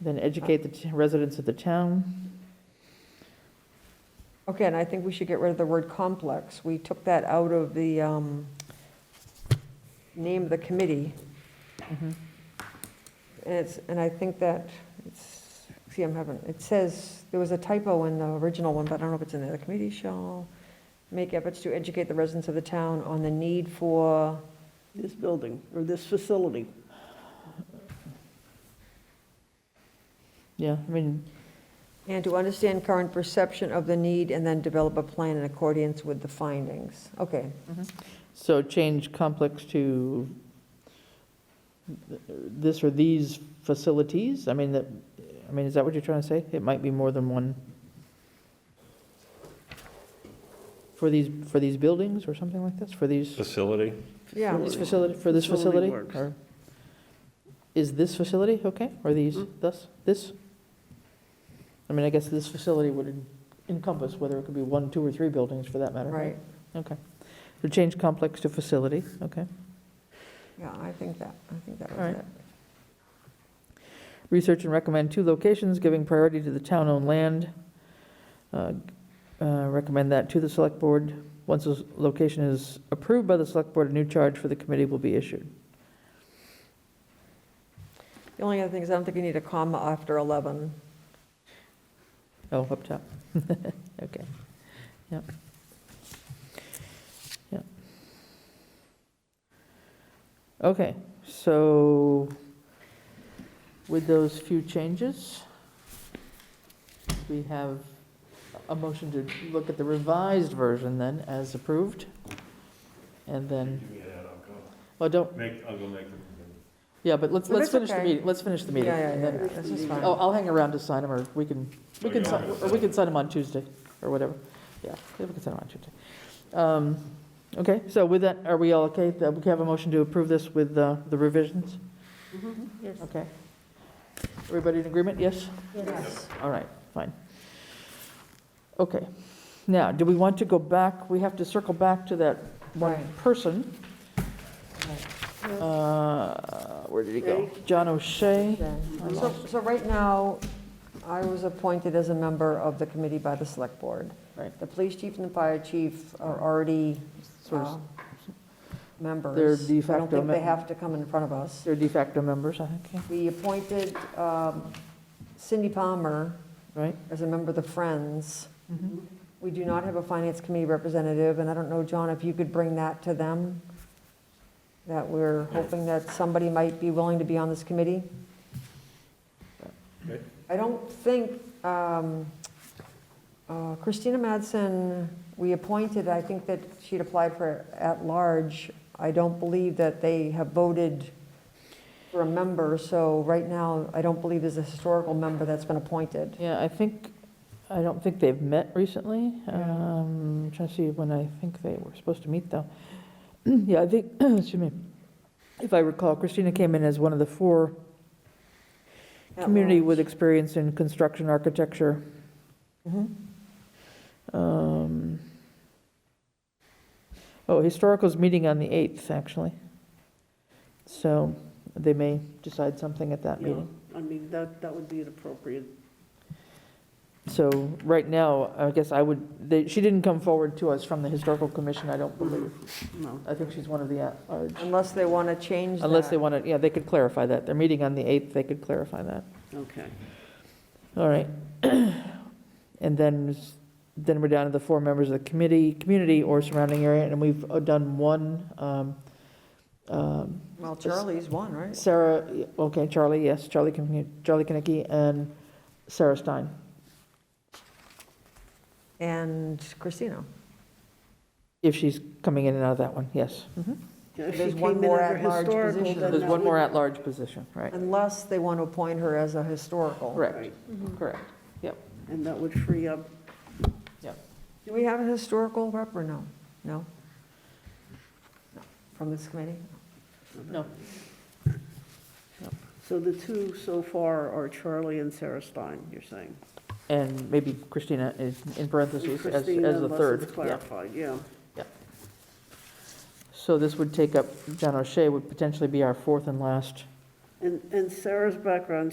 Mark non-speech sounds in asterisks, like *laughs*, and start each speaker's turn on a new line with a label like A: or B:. A: Then educate the t- residents of the town.
B: Okay, and I think we should get rid of the word complex. We took that out of the um, name of the committee. And it's, and I think that, it's, see, I'm having, it says, there was a typo in the original one, but I don't know if it's in there. The committee shall make efforts to educate the residents of the town on the need for,
C: this building or this facility.
A: Yeah, I mean,
B: and to understand current perception of the need, and then develop a plan in accordance with the findings. Okay,
A: so change complex to this or these facilities? I mean, that, I mean, is that what you're trying to say? It might be more than one. For these, for these buildings or something like this, for these?
D: Facility?
B: yeah.
A: This facility, for this
C: Facility
A: facility?
C: works.
A: or- Is this facility okay? Or these, thus, this? I mean, I guess this facility would encompass whether it could be one, two, or three buildings for that matter.
B: Right,
A: Okay. So change complex to facility, okay.
B: yeah, I think that, I think that
A: All
B: was
A: right.
B: it.
A: Research and recommend two locations, giving priority to the town-owned land. Uh, uh, Recommend that to the select board. Once this location is approved by the select board, a new charge for the committee will be issued.
B: The only other thing is, I don't think you need a comma after 11.
A: Oh, up top. *laughs* Okay. Yep. Yep. Okay, so with those few changes, we have a motion to look at the revised version then as approved. And then, well, don't,
D: Make, I'll go make them.
A: yeah, but let's,
B: No,
A: let's
B: that's
A: finish the
B: okay.
A: meeting. Let's finish the meeting.
B: Yeah, yeah,
A: and
B: yeah,
A: then-
B: yeah, this is fine.
A: Oh, I'll hang around to sign them, or we can, we can,
D: Okay,
A: sign-
D: I'll-
A: or we can sign them on Tuesday, or whatever. Yeah, yeah, we can sign them on Tuesday. Um, Okay, so with that, are we all okay? That We have a motion to approve this with uh, the revisions?
C: Mm-hmm. Yes.
A: Okay. Everybody in agreement? Yes?
C: Yes.
A: All right, fine. Okay. Now, do we want to go back? We have to circle back to that one
B: Right.
A: person. Uh, Where did he go? John O'Shea. I
B: So,
A: lost-
B: so right now, I was appointed as a member of the committee by the select board.
A: Right.
B: The police chief and the fire chief are already
A: Sort of
B: uh, members.
A: They're de
B: I don't
A: facto
B: think they
A: mem-
B: have to come in front of us.
A: They're de facto members, I think, yeah,
B: We appointed um, Cindy Palmer
A: right?
B: as a member of the Friends. We do not have a finance committee representative, and I don't know, John, if you could bring that to them, that we're hoping that somebody might be willing to be on this committee.
D: Okay.
B: I don't think um, uh, Christina Madsen, we appointed, I think that she'd applied for at-large. I don't believe that they have voted for a member, so right now, I don't believe there's a historical member that's been appointed.
A: Yeah, I think, I don't think they've met recently.
B: Yeah.
A: Um, Trying to see when I think they were supposed to meet, though. *clears throat* Yeah, I think, *clears throat* excuse me, if I recall, Christina came in as one of the four community with experience in construction architecture.
B: Mhm.
A: Um, Oh, Historical's meeting on the 8th, actually. So they may decide something at that
C: Yeah,
A: meeting.
C: I mean, that, that would be an appropriate.
A: So right now, I guess I would, they- she didn't come forward to us from the Historical Commission, I don't believe.
C: No.
A: I think she's one of the at-large,
B: Unless they want to change that.
A: unless they want to, yeah, they could clarify that. They're meeting on the 8th, they could clarify that.
C: Okay.
A: All right. *clears throat* And then, s- then we're down to the four members of the committee, community or surrounding area, and we've uh, done one. um, um,
B: Well, Charlie's one, right?
A: Sarah, okay, Charlie, yes, Charlie, Kin- Charlie Kinnicky and Sarah Stein.
B: And Christina.
A: If she's coming in and out of that one, yes. Mhm.
C: Yeah, If
B: There's
C: she
B: one
C: came in
B: more
C: under
B: at-large
C: historical,
B: position.
C: then
A: There's
C: that
A: one
C: would-
A: more at-large position, right?
B: Unless they want to appoint her as a historical.
A: Correct,
C: Right,
A: correct.
C: and that would free up,
B: Do we have a historical rep or no? No? No. From this committee?
A: No.
C: so the two so far are Charlie and Sarah Stein, you're saying?
A: And maybe Christina is in parentheses as,
C: Christina,
A: as the
C: unless
A: third.
C: it's
A: yeah.
C: clarified, yeah.
A: So this would take up, John O'Shea would potentially be our fourth and last
C: And, and Sarah's background,